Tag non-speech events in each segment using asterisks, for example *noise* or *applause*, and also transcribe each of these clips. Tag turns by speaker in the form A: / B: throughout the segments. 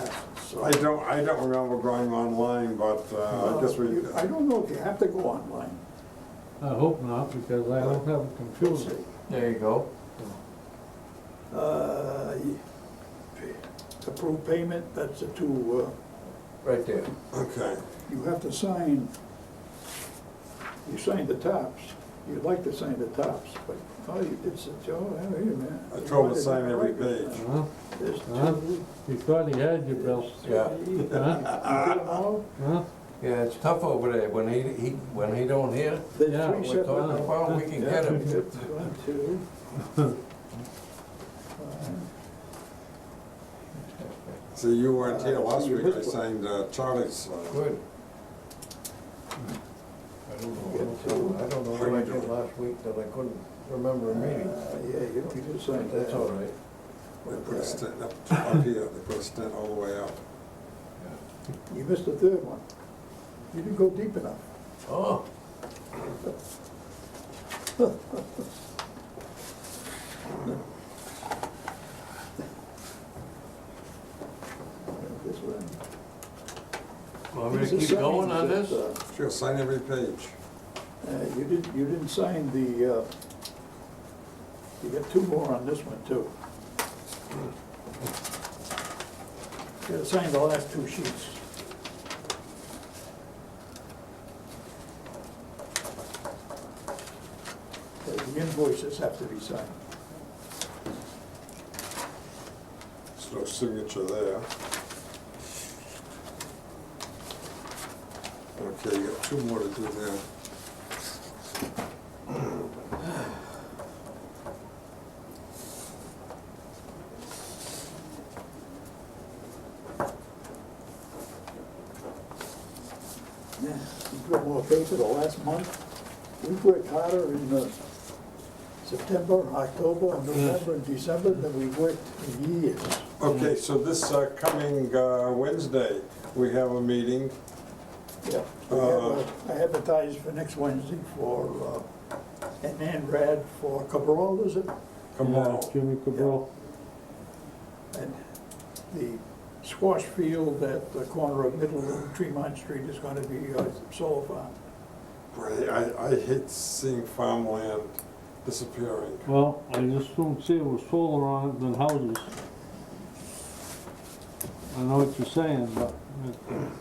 A: passed, so.
B: I don't, I don't remember going online, but uh, I guess we,
A: You- I don't know if you have to go online.
C: I hope not, because I don't have a computer.
D: There you go.
A: Uh, Approve payment, that's the two, uh,
D: Right there.
B: okay.
A: you have to sign, you signed the tops. You'd like to sign the tops, but, oh, you did such, oh, wait a minute.
B: I told him to sign every page.
C: Huh?
A: There's
C: Huh?
A: two.
C: You thought he had you, Bill. *laughs*
D: Yeah.
A: You did
C: Huh?
A: them all?
C: Huh?
D: Yeah, it's tough over there. When he, he, when he don't hear,
A: There's
C: Yeah,
A: three
C: we
D: we're
A: separate-
D: talking about, we can get
A: *laughs*
D: him.
A: Yeah, One, two.
C: *laughs*
A: Uh,
B: See, you weren't here last week, I signed uh, Charlie's. uh,
D: Good. I don't know, what else I I don't know what I did last week that I couldn't remember a meeting.
A: Yeah, you don't need to sign that.
D: That's all right.
B: They put a stent up, up here, they put a stent all the way up.
A: You missed the third one. You didn't go deep enough.
D: Oh,
A: This one.
D: want me to keep going on this?
A: Uh,
B: Sure, sign every page.
A: You didn't, you didn't sign the, uh, you got two more on this one, too. You gotta sign the last two sheets. The invoices have to be signed.
B: There's no signature there. Okay, you got two more to do there.
A: Yeah, You put more paper the last month. We worked harder in uh, September, October, November, and December than we worked in years.
B: Okay, so this uh, coming uh, Wednesday, we have a meeting.
A: Yeah. we have a- I advertised for next Wednesday for, uh, an Anrad for Cabral, is it?
B: Come on.
C: Yeah, Jimmy Cabral.
A: And the squash field at the corner of Middle and Tremont Street is gonna be uh, a solar farm.
B: Boy, I, I hate seeing farmland disappearing.
C: Well, I just don't see it was solar on it than houses. I know what you're saying, but it-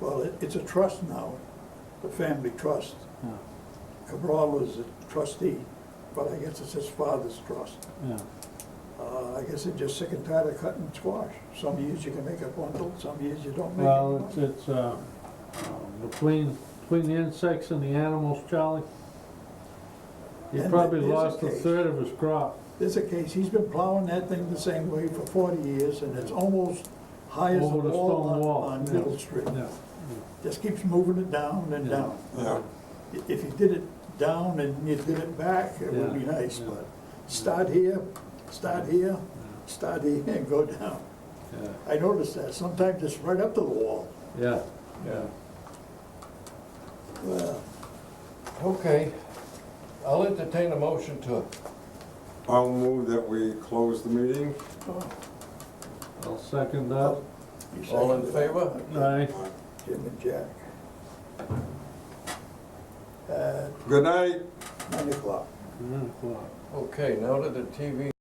A: Well, it, it's a trust now, the family trust.
C: Yeah.
A: Cabral is a trustee, but I guess it's his father's trust.
C: yeah.
A: Uh, I guess they're just sick and tired of cutting squash. Some years you can make a bundle, some years you don't make a
C: Well, it's,
A: bundle.
C: it's, uh, um, between, between the insects and the animals, Charlie, he
A: And
C: probably
A: it is a
C: lost a
A: case.
C: third of his crop.
A: There's a case, he's been plowing that thing the same way for forty years, and it's almost high as a
C: Over the
A: wall
C: stone
A: on-
C: wall,
A: on
C: yeah.
A: Middle Street.
C: Yeah.
A: Just keeps moving it down and
C: Yeah.
A: down.
B: Yeah,
A: I- If you did it down and you did it back, it would be
C: Yeah.
A: nice,
C: Yeah.
A: but start here, start here, start here, and go down.
C: Yeah,
A: I noticed that, sometimes it's right up to the wall.
C: yeah, yeah.
A: Well,
D: Okay. I'll entertain a motion to,
B: I'll move that we close the meeting.
A: oh,
C: I'll second that.
A: you
D: all in
A: seconded it.
D: favor?
C: Aye.
A: Jim and Jack. Uh,
B: Good night.
A: Nine o'clock.
C: Nine o'clock.
D: Okay, now to the TV